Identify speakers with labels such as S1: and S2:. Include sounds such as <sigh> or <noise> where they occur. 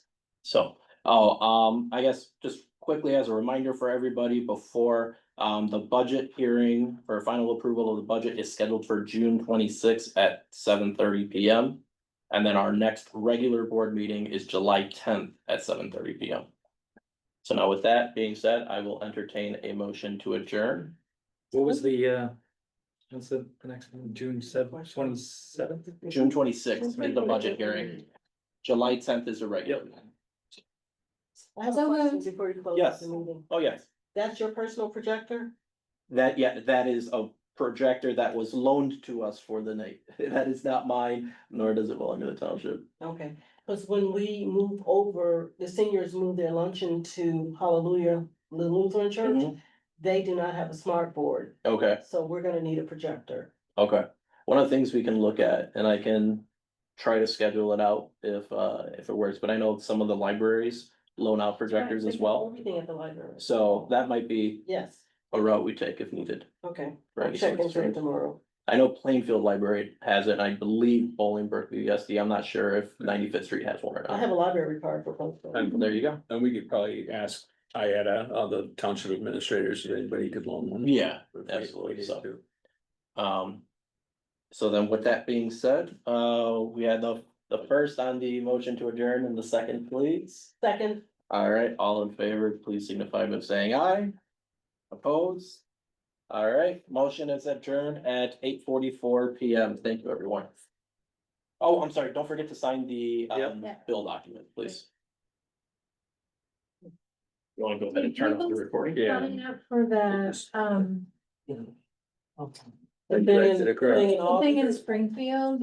S1: So, oh, um, I guess just quickly as a reminder for everybody before, um, the budget hearing for final approval of the budget is scheduled for June twenty-sixth at seven thirty P M. And then our next regular board meeting is July tenth at seven thirty P M. So now with that being said, I will entertain a motion to adjourn.
S2: What was the, uh, what's the the next one, June seventh, twenty seventh?
S1: June twenty-sixth is the budget hearing. July tenth is a regular.
S3: I have
S4: So
S3: a question
S4: moved.
S3: before you close
S1: Yes.
S3: the meeting.
S1: Oh, yes.
S3: That's your personal projector?
S1: That, yeah, that is a projector that was loaned to us for the night. <laughs> That is not mine, nor does it belong to the township.
S3: Okay, because when we move over, the seniors move their luncheon to Hallelujah the Lutheran Church.
S1: Mhm.
S3: They do not have a smart board,
S1: Okay,
S3: so we're gonna need a projector.
S1: okay. One of the things we can look at, and I can try to schedule it out if, uh, if it works, but I know some of the libraries loan out projectors
S3: Right,
S1: as
S3: they do
S1: well.
S3: Everything at the library.
S1: So that might be
S3: Yes,
S1: a route we take if needed.
S3: okay.
S1: for
S3: I'll
S1: any sort
S3: check
S1: of
S3: into it
S1: strange-
S3: tomorrow.
S1: I know Plainfield Library has it, and I believe Bolingbrook BSD. I'm not sure if Ninety-Fifth Street has one or
S3: Hmm. I have
S1: not.
S3: a library card for both. of them.
S1: There you go.
S2: And we could probably ask IATA, uh, the township administrators, if anybody could loan one.
S1: Yeah.
S2: If we-
S1: absolutely,
S2: we need
S1: so.
S2: to.
S1: Um. So then with that being said, uh, we had the, the first on the motion to adjourn and the second, please.
S3: Second,
S1: All right, all in favor, please signify by saying aye. Opposed? All right, motion is adjourned at eight forty-four PM. Thank you, everyone. Oh, I'm sorry, don't forget to sign the, um,
S4: Yep.
S1: bill document, please. You wanna go ahead and turn off the recording?
S4: Coming up for the, um,
S3: the
S2: Right,
S3: thing
S2: to the
S3: in,
S2: crowd.
S3: thing in
S4: thing in
S3: August.
S4: Springfield